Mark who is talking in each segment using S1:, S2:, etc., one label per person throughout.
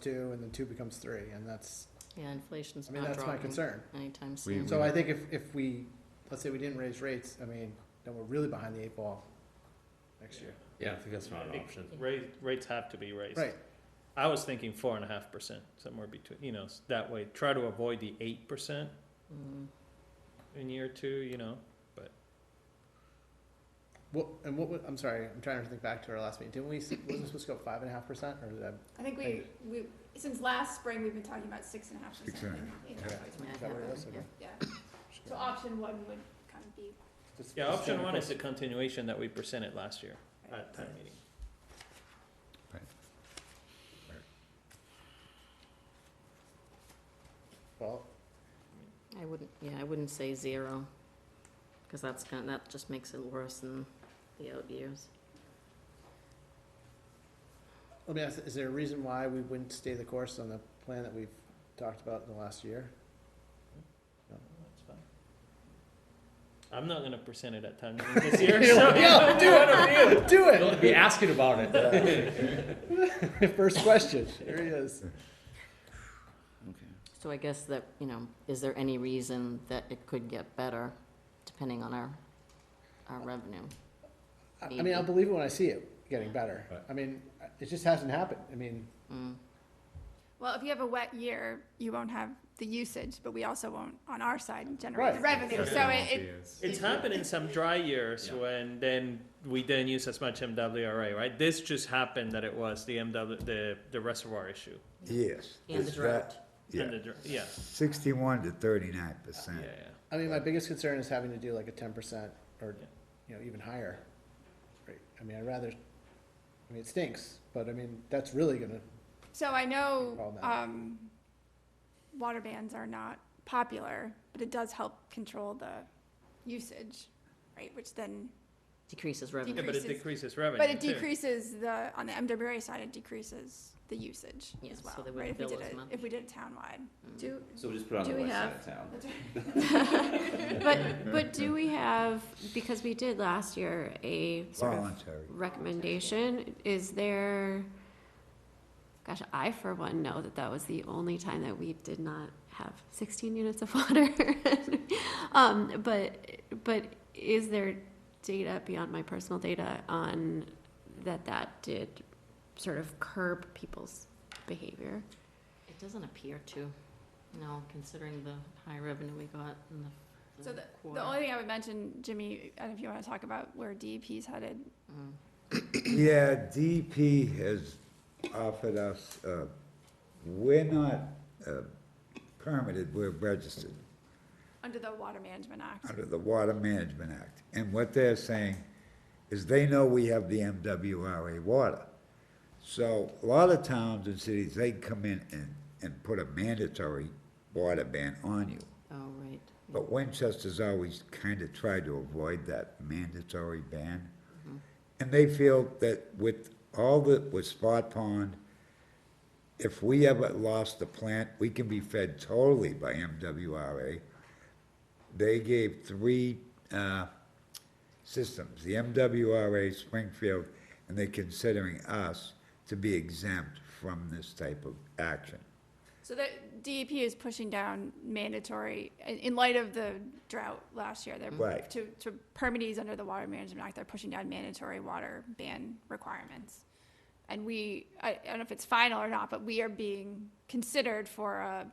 S1: two, and then two becomes three, and that's,
S2: Yeah, inflation's
S1: I mean,
S2: not
S1: that's my
S2: dropping
S1: concern.
S2: anytime
S3: We-
S2: soon.
S1: So I think if, if we, let's say we didn't raise rates, I mean, then we're really behind the eight ball next year.
S3: Yeah, I think that's not
S4: I
S3: an
S4: think
S3: option.
S4: Rates, rates have to be raised.
S1: Right,
S4: I was thinking four and a half percent, somewhere between, you know, s- that way, try to avoid the eight percent
S2: Mm.
S4: in year two, you know?
S1: what, and what, wa- I'm sorry, I'm trying to think back to our last meeting, didn't we, s- wasn't it supposed to go five and a half percent, or did I?
S5: I think we, we, since last spring, we've been talking about six and a half percent.
S6: Six and a
S5: in- in
S6: half,
S5: employees'
S2: Yeah,
S1: Is that what it
S2: yeah,
S1: is? Okay.
S2: yeah.
S5: Yeah, so option one would kind of be,
S1: Just-
S4: Yeah,
S1: just
S4: option
S1: staying
S4: one is
S1: course.
S4: the continuation that we presented last year at town meeting.
S1: Well,
S2: I wouldn't, yeah, I wouldn't say zero, because that's gonna, that just makes it worse in the out years.
S1: let me ask, is there a reason why we wouldn't stay the course on the plan that we've talked about in the last year?
S4: Oh, That's fine. I'm not gonna present it at town meeting this year,
S1: You're
S4: so.
S1: like, "No, do it over here, do it!
S3: Don't be asking about it.
S1: First question, here he is.
S2: So I guess that, you know, is there any reason that it could get better, depending on our, our revenue?
S1: I I mean, I'll believe it when I see it getting better.
S3: Right.
S1: I mean, it just hasn't happened. I mean,
S2: Mm.
S5: well, if you have a wet year, you won't have the usage, but we also won't, on our side, generate the
S1: Right.
S5: revenue, so it, it,
S4: It's happened in some dry years
S3: Yeah.
S4: when then we didn't use as much MWRA, right? This just happened that it was the MW, the, the reservoir issue.
S6: Yes.
S2: And the
S6: it's
S2: drought.
S6: that-
S4: and the
S6: Yeah,
S4: dr- Yeah,
S6: sixty-one to thirty-nine
S4: yeah,
S6: percent.
S4: yeah.
S1: I mean, my biggest concern is having to do like a ten percent or,
S4: Yeah.
S1: you know, even higher. rate. I mean, I'd rather, I mean, it stinks, but I mean, that's really gonna,
S5: so I know,
S1: Problematic.
S5: um, water bans are not popular, but it does help control the usage, right, which then,
S2: Decreases revenue,
S4: Yeah, but it
S5: Decreases-
S4: decreases revenue
S5: but it
S4: too.
S5: decreases the, on the MWRA side, it decreases the usage
S2: Yeah,
S5: as
S2: so
S5: well,
S2: they
S5: right,
S2: wouldn't
S5: if we
S2: bill
S5: did
S2: as
S5: it,
S2: much.
S5: if we did it townwide.
S7: Do,
S8: So we just put it on
S7: Do
S8: the
S7: we
S8: west side
S7: have-
S8: of town.
S7: but, but do we have, because we did last year a sort of
S6: Voluntary.
S7: recommendation, is there, gosh, I for one know that that was the only time that we did not have sixteen units of water. Um, but, but is there data beyond my personal data on that that did sort of curb people's behavior?
S2: it doesn't appear to, no, considering the high revenue we got in the
S5: So
S2: the
S5: the,
S2: quarter.
S5: the only thing I would mention, Jimmy, I don't know if you wanna talk about where DEP's headed,
S2: Mm.
S6: Yeah, DP has offered us, uh, we're not, uh, permitted, we're registered
S5: under the Water Management Act.
S6: under the Water Management Act. And what they're saying is they know we have the MWRA water. So a lot of towns and cities, they come in and, and put a mandatory water ban on you.
S2: Oh, right.
S6: But Winchester's always kind of tried to avoid that mandatory ban. And they feel that with all that with Spot Pond, if we ever lost the plant, we can be fed totally by MWRA. They gave three, uh, systems, the MWRA, Springfield, and they're considering us to be exempt from this type of action.
S5: So the DEP is pushing down mandatory, in, in light of the drought last year, they're,
S6: Right.
S5: to, to permittees under the Water Management Act, they're pushing down mandatory water ban requirements. And we, I, I don't know if it's final or not, but we are being considered for a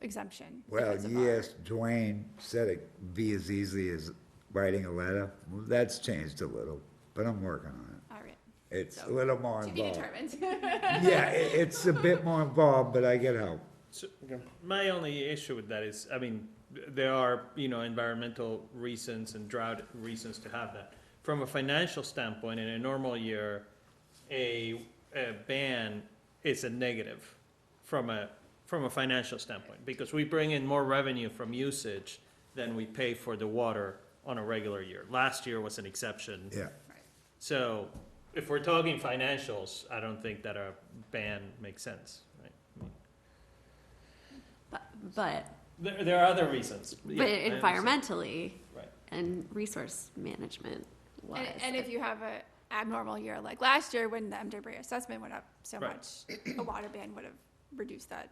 S5: exemption.
S6: Well,
S5: because of our-
S6: yes, Dwayne said it be as easy as writing a letter. Well, That's changed a little, but I'm working on
S5: All right,
S6: it. It's a
S5: So,
S6: little more
S5: to be
S6: involved.
S5: determined.
S6: Yeah, i it's a bit more involved, but I get help.
S4: My only issue with that is, I mean, th- there are, you know, environmental reasons and drought reasons to have that. From a financial standpoint, in a normal year, a, a ban is a negative from a, from a financial standpoint, because we bring in more revenue from usage than we pay for the water on a regular year. Last year was an exception.
S6: Yeah,
S4: So if we're talking financials, I don't think that a ban makes sense, right? I mean,
S7: But, but
S4: There, there are other reasons. Yeah,
S7: But
S4: I understand.
S7: environmentally
S4: Right.
S7: and resource management
S5: And,
S7: wise.
S5: and if you have a abnormal year, like last year when the MWRA assessment went up so
S4: Right.
S5: much, a water ban would have reduce that